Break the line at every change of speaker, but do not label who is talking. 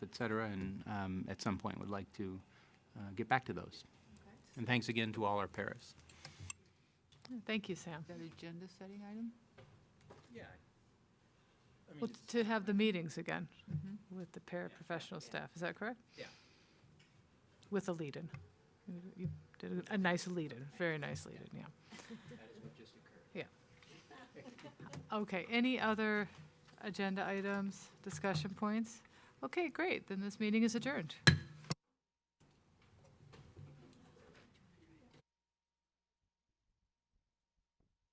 et cetera, and um, at some point would like to uh, get back to those. And thanks again to all our paras.
Thank you, Sam.
Is that agenda setting item?
Yeah. I mean,
Well,
it's-
to have the meetings again
Mm-hmm.
with the paraprofessional staff, is that correct?
Yeah.
With a lead-in. You- You did a a nice lead-in, very nice lead-in, yeah.
that is what just occurred.
Okay, any other agenda items, discussion points? Okay, great, then this meeting is adjourned.